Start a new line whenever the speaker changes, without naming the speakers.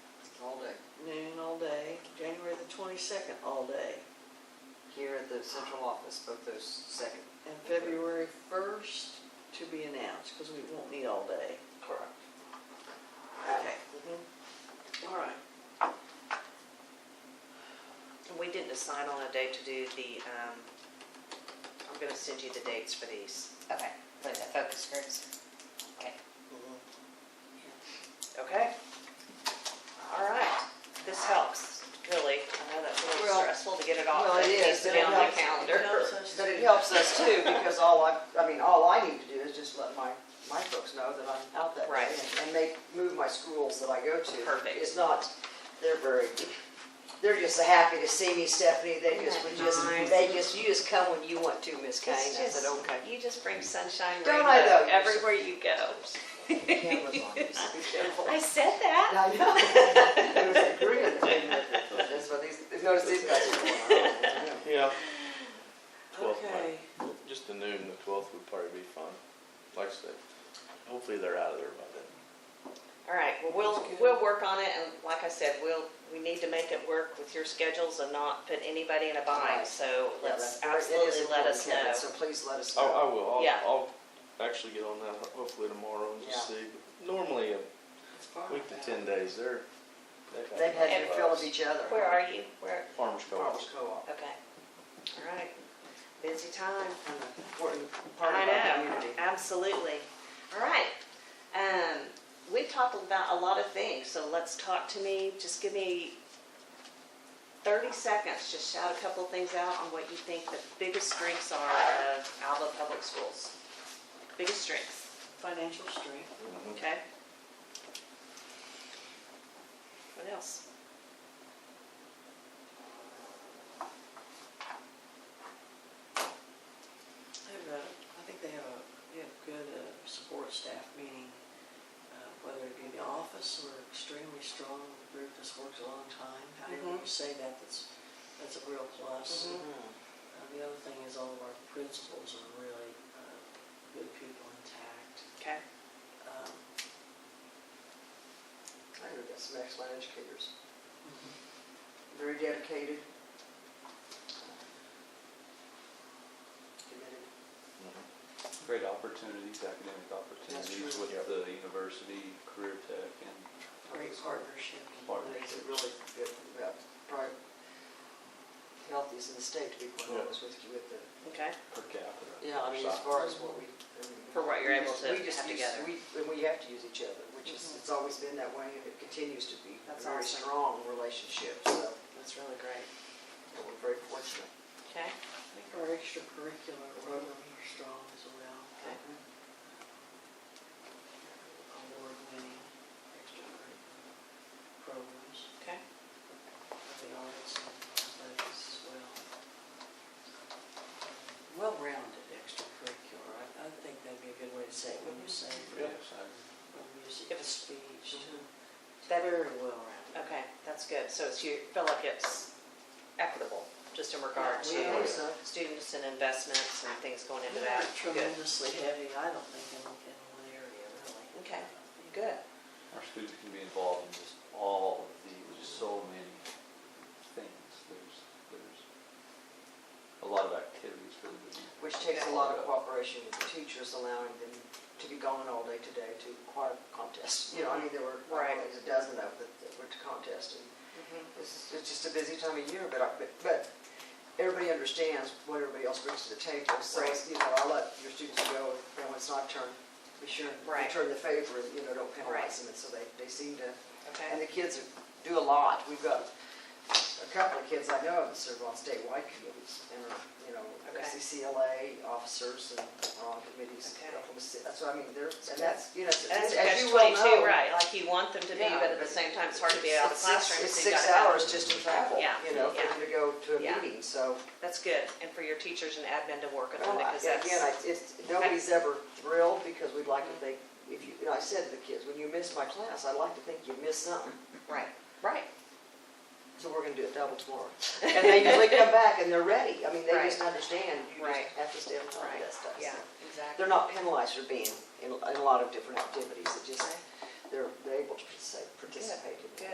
twenty-second all day,
here at the central office, both those second.
and February first to be announced, because we won't need all day.
Correct.
Okay,
Mm-hmm.
all right.
We didn't decide on a date to do the, um, I'm gonna send you the dates for these,
Okay, for the focus groups. Okay.
Mm-hmm.
okay? All right, this helps, really. I know that's a little
Well-
stressful to get it off,
Well,
but
it
it needs
is.
to be
It
on the
helps-
calendar.
it helps us
But
to-
it helps us too, because all I, I mean, all I need to do is just let my, my folks know that I'm out that
Right.
day and- and make, move my schools that I go to.
Perfect.
It's not, they're very, they're just happy to see me, Stephanie, they just, we
Isn't that
just,
nice?
they just, you just come when you want to, Miss Kane. I
It's
said,
just-
okay.
You just bring sunshine,
Don't I
rainbow
though?
everywhere you go.
Cameras on, just be careful.
I said that.
I know. There was agreement between the- That's what these, notice these guys are going on.
Yeah, Twelfth might-
Okay,
just the noon, the twelfth would probably be fun. Like I said, hopefully they're out of there by then.
All right, well, we'll, we'll work on it, and like I said, we'll, we need to make it work with your schedules and not put anybody in a bind,
Right.
so
Yeah,
let's
that's- it is
absolutely let
important,
us
Kevin,
know.
So please let us know.
Oh, I will,
Yeah.
I'll, I'll actually get on that hopefully tomorrow and just
Yeah.
see. Normally, a
it's far.
week to ten days, they're. they've had
They've had
enough
their fill of
us.
each other.
Where are you? Where?
Farmers co-op.
Farmers Co-op,
Okay. All right. Busy time.
an important part
I
of our
know.
community.
Absolutely. All right. Um, we've talked about a lot of things, so let's talk to me. Just give me thirty seconds. Just shout a couple things out on what you think the biggest strengths are of Alva Public Schools. Biggest strengths,
Financial strength,
Mhm.
okay? What else?
they have a, I think they have a, they have good uh, support staff, meaning uh, whether it be the office or extremely strong group that's worked a long time, however you say that, that's, that's a real plus.
Mm-hmm.
Mhm.
Uh, The other thing is all of our principals are really uh, good people intact.
Okay.
Um,
I know we've got some excellent educators. Very dedicated. Committed.
Mm-hmm.
Great opportunities, academic opportunities
true.
with the university, career tech, and
Great partnership.
Makes it really good, about probably healthiest in the state, to be quite
Yeah.
honest with you, with the,
Okay.
per capita.
yeah, I mean, as
size.
far as what we. I mean,
For what you're
we
able
just-
to
we just
have
use-
together.
We, and we have to use each other, which is,
Mhm.
it's always been that way, and it continues to be. a
That's
Very
awesome.
strong relationship, so,
That's really great.
and we're very fortunate.
Okay.
I think our extracurricular program are strong as well.
Okay.
Award-winning extracurricular programs,
Okay.
of the arts and athletics as well. Well-rounded extracurricular, I, I think that'd be a good way to say it, when you say,
Yes,
from
I-
music
If
to
it's-
speech to,
That-
very well-rounded.
Okay, that's good. So it's, you feel like it's equitable, just in regard
Yeah, we uh,
to
hope so.
students and investments and things going into that?
Not
Good.
tremendously heavy, I don't think, in, in one area, really.
Okay, good.
Our students can be involved in just all of the, there's just so many things. There's, there's a lot of activities for them to do.
Which takes a lot of cooperation with the teachers, allowing them to be gone all day today to choir contests. You know, I mean, there were
Right.
always a dozen of them that were to contest, and it's, it's just a busy time of year, but, I- but, but everybody understands what everybody else brings to the table, so, it's, you know, I let your students go, and when it's not turn, be sure,
Right.
return the favor, and, you know, don't
Right.
penalize them, and so they, they seem to, and
Okay,
the kids do a lot, we've got a couple of kids I know of that serve on statewide committees, and are, you know, E
Okay.
SCCLA officers and are on committees,
Okay.
Oklahoma City, that's what I mean, they're, and that's, you know, it's-
that's
it's-
a
as
catch
you well
twenty-two,
know.
right, like you want them to be,
Yeah,
but at the
but
same time, it's hard to be out of
it's
the
six-
classroom.
It's
so you
six
gotta have-
hours just to travel,
Yeah,
you know, for
yeah.
them to go to a
Yeah.
meeting, so.
That's good, and for your teachers and admin to work
Well,
on it,
I-
because that's,
Oh, Again, I, it's, nobody's ever thrilled, because we'd like to think, if you, you know, I said to the kids, when you miss my class, I'd like to think you missed something.
right, right.
So we're gonna do it double tomorrow. And they usually come back and they're ready. I mean, they
Right.
just understand, you just
Right.
have to stay on top of
Right,
that stuff.
yeah,
So
exactly.
They're not penalized for being in, in a lot of different activities, it just,
Okay.
they're, they're able to participate- participate in
good.
that.